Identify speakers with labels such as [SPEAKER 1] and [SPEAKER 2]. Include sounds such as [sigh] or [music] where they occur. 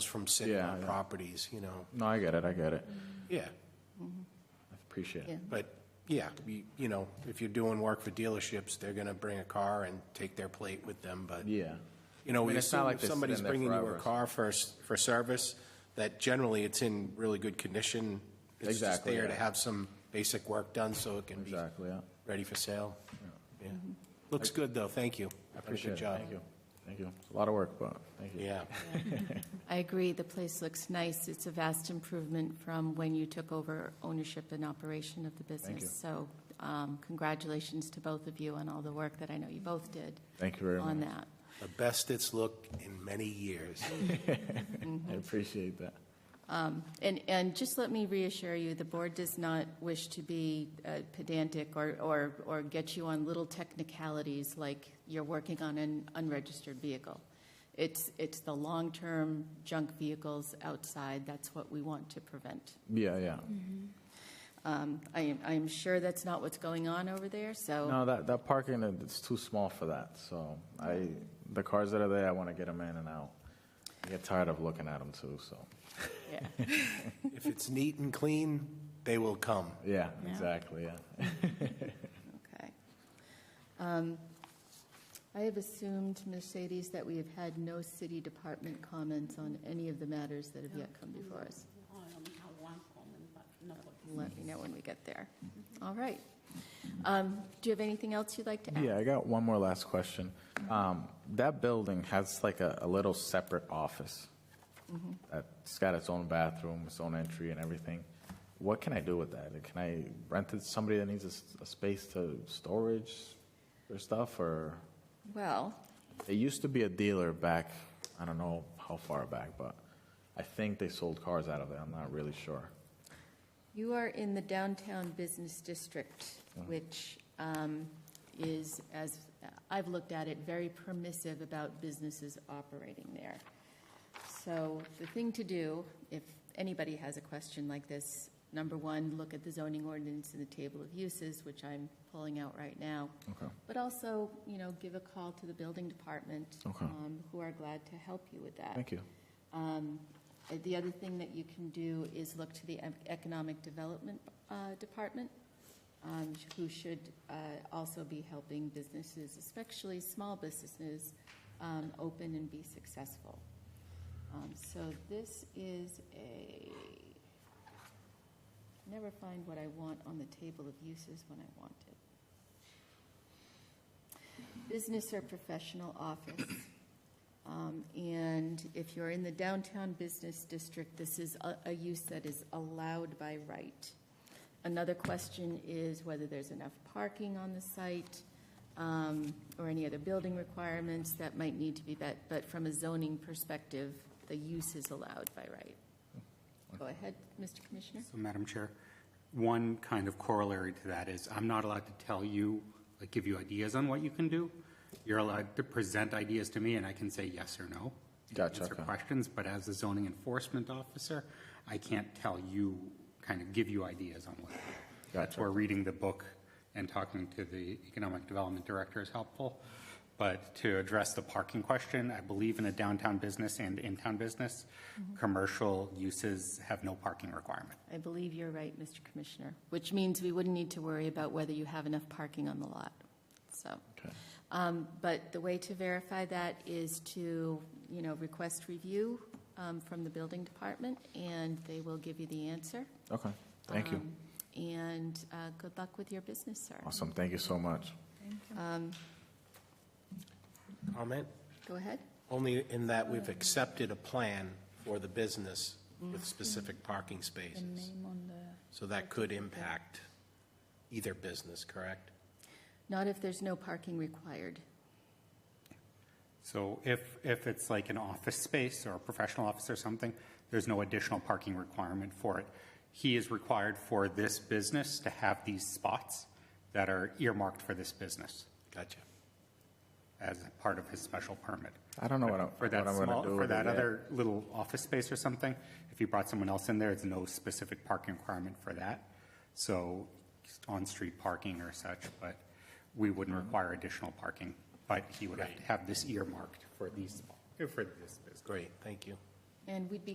[SPEAKER 1] from sitting
[SPEAKER 2] Yeah,
[SPEAKER 1] on
[SPEAKER 2] yeah.
[SPEAKER 1] properties, you know,
[SPEAKER 2] No, I get it, I get it.
[SPEAKER 3] Mm-hmm.
[SPEAKER 1] yeah,
[SPEAKER 2] I appreciate
[SPEAKER 3] Yeah.
[SPEAKER 2] it.
[SPEAKER 1] but, yeah, you, you know, if you're doing work for dealerships, they're gonna bring a car and take their plate with them, but,
[SPEAKER 2] Yeah.
[SPEAKER 1] you know,
[SPEAKER 2] I mean,
[SPEAKER 1] we
[SPEAKER 2] it's not
[SPEAKER 1] assume
[SPEAKER 2] like
[SPEAKER 1] if
[SPEAKER 2] they sit
[SPEAKER 1] somebody's
[SPEAKER 2] in there
[SPEAKER 1] bringing you a
[SPEAKER 2] forever.
[SPEAKER 1] car for, s- for service, that generally it's in really good condition. It's just
[SPEAKER 2] Exactly,
[SPEAKER 1] there to
[SPEAKER 2] yeah.
[SPEAKER 1] have some basic work done so it can be
[SPEAKER 2] Exactly, yeah.
[SPEAKER 1] ready for sale. Yeah. Looks good, though, thank you.
[SPEAKER 2] I
[SPEAKER 1] Done a good
[SPEAKER 2] appreciate it.
[SPEAKER 1] job.
[SPEAKER 2] Thank you. Thank you. It's a lot of work, but thank you.
[SPEAKER 1] Yeah,
[SPEAKER 3] I agree, the place looks nice. It's a vast improvement from when you took over ownership and operation of the
[SPEAKER 2] you.
[SPEAKER 3] business. So um, congratulations to both of you on all the work that I know you both did
[SPEAKER 2] Thank you very
[SPEAKER 3] on
[SPEAKER 2] much.
[SPEAKER 3] that.
[SPEAKER 1] the best it's looked in many years.
[SPEAKER 2] I appreciate that.
[SPEAKER 3] And, and just let me reassure you, the board does not wish to be uh, pedantic or, or, or get you on little technicalities like you're working on an unregistered vehicle. It's, it's the long-term junk vehicles outside, that's what we want to prevent.
[SPEAKER 2] Yeah, yeah.
[SPEAKER 3] Mm-hmm. Um, I am, I am sure that's not what's going on over there, so,
[SPEAKER 2] No, that, that parking, uh, it's too small for that, so I, the cars that are there, I want to get them in and out. I get tired of looking at them too, so,
[SPEAKER 3] yeah.
[SPEAKER 1] If it's neat and clean, they will come.
[SPEAKER 2] yeah,
[SPEAKER 3] Yeah.
[SPEAKER 2] exactly, yeah.
[SPEAKER 3] Okay. Um, I have assumed, Mercedes, that we have had no city department comments on any of the matters that have yet come before us. Let me know when we get there. All right. Um, Do you have anything else you'd like to add?
[SPEAKER 2] Yeah, I got one more last question. Um, That building has like a, a little separate office. Mm-hmm. It's got its own bathroom, its own entry and everything. What can I do with that? Like, Can I rent it to somebody that needs a, s- a space to storage their stuff or?
[SPEAKER 3] Well,
[SPEAKER 2] It used to be a dealer back, I don't know how far back, but I think they sold cars out of there. I'm not really sure.
[SPEAKER 3] you are in the downtown business district,
[SPEAKER 2] Uh-huh.
[SPEAKER 3] which um, is, as uh, I've looked at it, very permissive about businesses operating there. So the thing to do, if anybody has a question like this, number one, look at the zoning ordinance and the table of uses, which I'm pulling out right now.
[SPEAKER 2] Okay.
[SPEAKER 3] But also, you know, give a call to the building department,
[SPEAKER 2] Okay.
[SPEAKER 3] um, who are glad to help you with that.
[SPEAKER 2] Thank you.
[SPEAKER 3] Um, uh, The other thing that you can do is look to the Ec- Economic Development uh, Department, um, sh- who should uh, also be helping businesses, especially small businesses, um, open and be successful. Um, So this is a, never find what I want on the table of uses when I want it. Business or professional office. [clears throat] Um, And if you're in the downtown business district, this is a, a use that is allowed by right. Another question is whether there's enough parking on the site um, or any other building requirements that might need to be met. But from a zoning perspective, the use is allowed by right. Go ahead, Mr. Commissioner.
[SPEAKER 4] So, Madam Chair, one kind of corollary to that is I'm not allowed to tell you, like, give you ideas on what you can do. You're allowed to present ideas to me and I can say yes or no. and
[SPEAKER 2] Gotcha,
[SPEAKER 4] Answer
[SPEAKER 2] okay.
[SPEAKER 4] questions, but as a zoning enforcement officer, I can't tell you, kind of give you ideas on what. That's
[SPEAKER 2] Gotcha.
[SPEAKER 4] where reading the book and talking to the economic development director is helpful. But to address the parking question, I believe in a downtown business and in-town business, commercial uses have no parking requirement.
[SPEAKER 3] I believe you're right, Mr. Commissioner, which means we wouldn't need to worry about whether you have enough parking on the lot, so.
[SPEAKER 2] Okay.
[SPEAKER 3] Um, But the way to verify that is to, you know, request review um, from the building department, and they will give you the answer.
[SPEAKER 2] Okay. Thank you.
[SPEAKER 3] Um, And uh, good luck with your business, sir.
[SPEAKER 2] Awesome. Thank you so much.
[SPEAKER 1] Comment?
[SPEAKER 3] Go ahead.
[SPEAKER 1] Only in that we've accepted a plan for the business with specific parking spaces. So that could impact either business, correct?
[SPEAKER 3] Not if there's no parking required.
[SPEAKER 4] So if, if it's like an office space or a professional office or something, there's no additional parking requirement for it. He is required for this business to have these spots that are earmarked for this business
[SPEAKER 1] Gotcha.
[SPEAKER 4] as a part of his special permit.
[SPEAKER 2] I don't know what I'm, what
[SPEAKER 4] For
[SPEAKER 2] I'm
[SPEAKER 4] that
[SPEAKER 2] going to
[SPEAKER 4] small,
[SPEAKER 2] do
[SPEAKER 4] for
[SPEAKER 2] with
[SPEAKER 4] that
[SPEAKER 2] it yet.
[SPEAKER 4] other little office space or something, if you brought someone else in there, it's no specific parking requirement for that. So on-street parking or such, but we wouldn't
[SPEAKER 2] Mm-hmm.
[SPEAKER 4] require additional parking. But he would have to have this earmarked for these, for this business.
[SPEAKER 1] Great, thank you.
[SPEAKER 3] And we'd be